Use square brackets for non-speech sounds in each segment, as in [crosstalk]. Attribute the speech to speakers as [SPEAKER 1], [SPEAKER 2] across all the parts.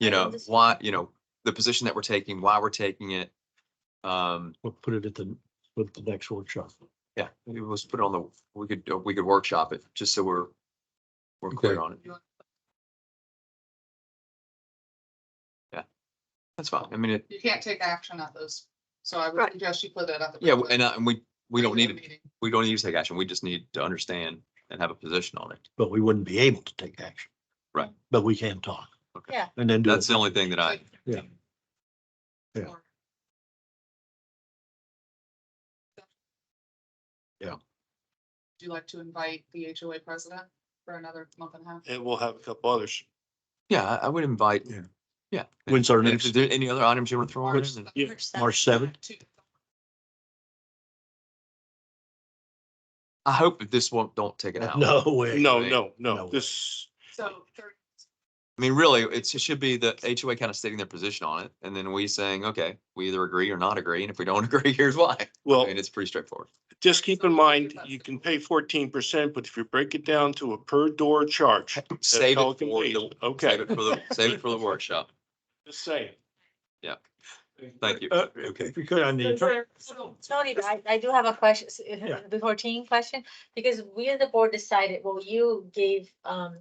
[SPEAKER 1] you know,
[SPEAKER 2] Understood.
[SPEAKER 1] why, you know, the position that we're taking, why we're taking it. Um,
[SPEAKER 3] We'll put it at the, with the next workshop.
[SPEAKER 1] yeah, maybe let's put it on the, we could, uh, we could workshop it, just so we're, we're clear
[SPEAKER 4] Okay.
[SPEAKER 1] on it. Yeah, that's fine. I mean, it,
[SPEAKER 5] You can't take action on those, so I would
[SPEAKER 2] Right.
[SPEAKER 5] suggest you put that at the.
[SPEAKER 1] yeah, and, uh, and we, we don't need,
[SPEAKER 5] regular
[SPEAKER 1] it.
[SPEAKER 5] meeting.
[SPEAKER 1] we don't need to take action. We just need to understand and have a position on it.
[SPEAKER 3] But we wouldn't be able to take action.
[SPEAKER 1] Right.
[SPEAKER 3] But we can talk.
[SPEAKER 1] Okay.
[SPEAKER 2] Yeah.
[SPEAKER 3] And then do.
[SPEAKER 1] That's
[SPEAKER 3] it.
[SPEAKER 1] the only thing that I,
[SPEAKER 3] Yeah. Yeah.
[SPEAKER 5] Or-
[SPEAKER 3] Yeah.
[SPEAKER 5] Would you like to invite the HOA president for another month and a half?
[SPEAKER 4] And we'll have a couple others.
[SPEAKER 1] yeah, I- I would invite.
[SPEAKER 3] Yeah.
[SPEAKER 1] Yeah.
[SPEAKER 3] When's our
[SPEAKER 1] And
[SPEAKER 3] next,
[SPEAKER 1] if there any other items you want to throw on?
[SPEAKER 5] March
[SPEAKER 1] then-
[SPEAKER 3] yeah,
[SPEAKER 2] March
[SPEAKER 3] March
[SPEAKER 2] seventh.
[SPEAKER 3] seventh?
[SPEAKER 5] Two-
[SPEAKER 1] I hope that this won't, don't take it out.
[SPEAKER 3] Uh, No way.
[SPEAKER 4] No,
[SPEAKER 1] Right.
[SPEAKER 4] no,
[SPEAKER 3] No.
[SPEAKER 4] no, this,
[SPEAKER 5] So thirty,
[SPEAKER 1] I mean, really, it's, it should be the HOA kind of stating their position on it, and then we saying, okay, we either agree or not agree, and if we don't [laughs] agree, here's why.
[SPEAKER 4] well,
[SPEAKER 1] And it's pretty straightforward.
[SPEAKER 4] just keep in mind, you can pay fourteen percent, but if you break it down to a per door charge,
[SPEAKER 1] Save it
[SPEAKER 4] Pelican
[SPEAKER 1] for
[SPEAKER 4] Bay.
[SPEAKER 1] the,
[SPEAKER 4] Okay.
[SPEAKER 1] save it for the, save it for the workshop.
[SPEAKER 4] just saying.
[SPEAKER 1] Yeah. Thank you.
[SPEAKER 3] Uh, okay, if you could, on the, attorney-
[SPEAKER 2] Tony, I, I do have a question, s-
[SPEAKER 3] Yeah.
[SPEAKER 2] before team question, because we as the board decided, well, you gave, um,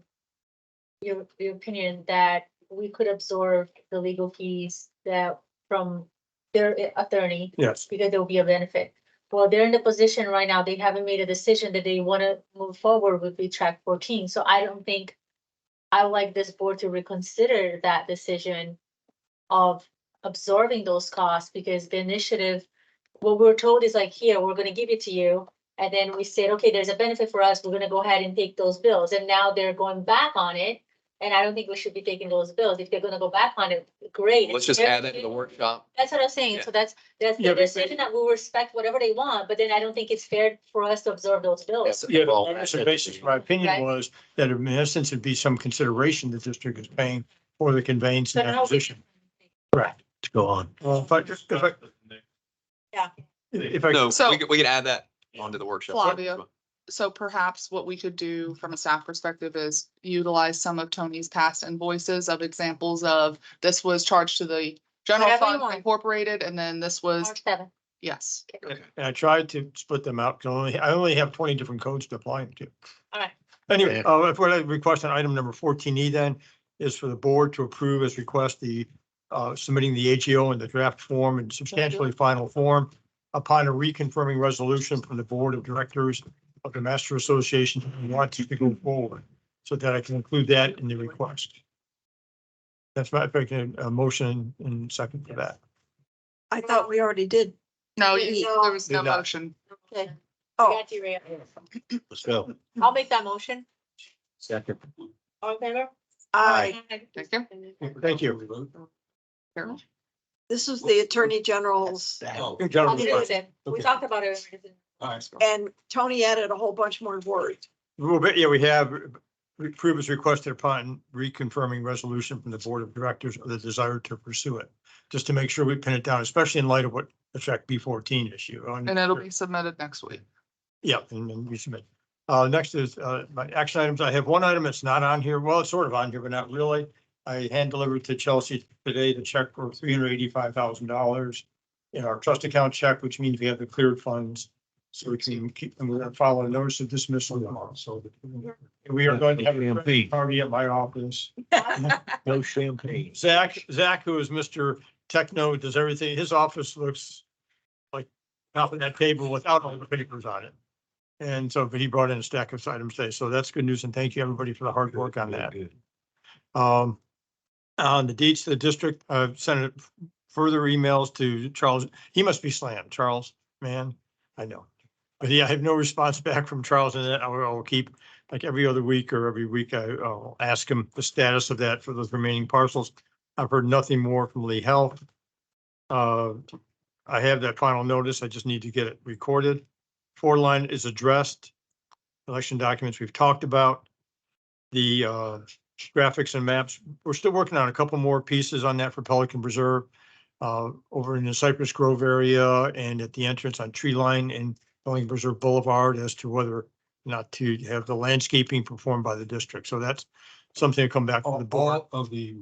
[SPEAKER 2] your, your opinion that we could absorb the legal fees that from their uh, attorney
[SPEAKER 3] yes,
[SPEAKER 2] because there will be a benefit. Well, they're in the position right now, they haven't made a decision that they want to move forward with the track fourteen, so I don't think I would like this board to reconsider that decision of absorbing those costs, because the initiative, what we're told is like, here, we're gonna give it to you, and then we said, okay, there's a benefit for us, we're gonna go ahead and take those bills, and now they're going back on it, and I don't think we should be taking those bills, if they're gonna go back on it, great.
[SPEAKER 1] Let's just add that to the workshop.
[SPEAKER 2] That's what I'm saying, so that's, that's
[SPEAKER 4] Yeah,
[SPEAKER 2] the
[SPEAKER 4] but-
[SPEAKER 2] decision that we'll respect whatever they want, but then I don't think it's fair for us to absorb those bills.
[SPEAKER 3] yeah,
[SPEAKER 1] Well,
[SPEAKER 3] the premise and basis of my
[SPEAKER 2] Right.
[SPEAKER 3] opinion was that in essence, it'd be some consideration the district is paying for the conveyance and
[SPEAKER 2] So how we-
[SPEAKER 3] acquisition. Correct, to go on. If I just, if I,
[SPEAKER 2] Yeah.
[SPEAKER 3] if I.
[SPEAKER 1] No,
[SPEAKER 5] So-
[SPEAKER 1] we could, we could add that onto the workshop.
[SPEAKER 5] Flavia. so perhaps what we could do from a staff perspective is utilize some of Tony's past invoices of examples of this was charged to the general
[SPEAKER 2] Whatever you
[SPEAKER 5] fund
[SPEAKER 2] want.
[SPEAKER 5] incorporated, and then this was,
[SPEAKER 2] March seventh.
[SPEAKER 5] yes.
[SPEAKER 3] And I tried to split them out, 'cause I only, I only have twenty different codes to apply them to.
[SPEAKER 2] Alright.
[SPEAKER 3] Anyway, uh, if we're requesting item number fourteen E then, is for the board to approve as request the, uh, submitting the AGO in the draft form and substantially final form upon a reconfirming resolution from the Board of Directors of the Master Association who wants to go forward, so that I can include that in the request. That's my, if I can, a motion and second for that.
[SPEAKER 6] I thought we already did.
[SPEAKER 5] No,
[SPEAKER 2] Yeah.
[SPEAKER 5] you- there was no
[SPEAKER 3] Did not.
[SPEAKER 5] motion.
[SPEAKER 6] Okay.
[SPEAKER 2] I
[SPEAKER 6] Oh,
[SPEAKER 2] got you, Rhea.
[SPEAKER 3] Let's go.
[SPEAKER 2] I'll make that motion.
[SPEAKER 3] Second.
[SPEAKER 2] All in favor?
[SPEAKER 6] I,
[SPEAKER 5] Thank you.
[SPEAKER 3] Thank you.
[SPEAKER 5] Carol.
[SPEAKER 6] this is the Attorney General's,
[SPEAKER 2] I'll do it
[SPEAKER 3] Gentlemen.
[SPEAKER 2] then. We
[SPEAKER 3] Okay.
[SPEAKER 2] talked about it.
[SPEAKER 6] and Tony added a whole bunch more words.
[SPEAKER 3] Well, but yeah, we have approve as requested upon reconfirming resolution from the Board of Directors of the desire to pursue it. Just to make sure we pin it down, especially in light of what the track B fourteen issue. on-
[SPEAKER 5] And it'll be submitted next week.
[SPEAKER 3] Yeah, and then you submit. Uh, next is, uh, my action items. I have one item that's not on here. Well, it's sort of on here, but not really. I hand delivered to Chelsea today the check for three hundred eighty-five thousand dollars in our trust account check, which means we have the cleared funds. So we can keep, and we're gonna file a notice of dismissal tomorrow, so. We are going to have a
[SPEAKER 4] Champagne.
[SPEAKER 3] party at my office.
[SPEAKER 4] [laughs] No champagne.
[SPEAKER 3] Zach, Zach, who is Mr. Techno, does everything, his office looks like top of that table without all the papers on it. And so, but he brought in a stack of items today, so that's good news, and thank you, everybody, for the hard work on that. Um, on the deeds to the district, I've sent it further emails to Charles, he must be slammed, Charles, man, I know. But yeah, I have no response [laughs] back from Charles and I will I will keep, like every other week or every week, I, I'll ask him the status of that for those remaining parcels. I've heard nothing more from Lee Health. Uh, I have that final notice, I just need to get it recorded. Four line is addressed. Election documents we've talked about. The, uh, graphics and maps. We're still working on a couple more pieces on that for Pelican Preserve. Uh, over in the Cypress Grove area and at the entrance on Tree Line and Pelican Preserve Boulevard as to whether or not to have the landscaping performed by the district. So that's something to come back to the board.
[SPEAKER 7] All of the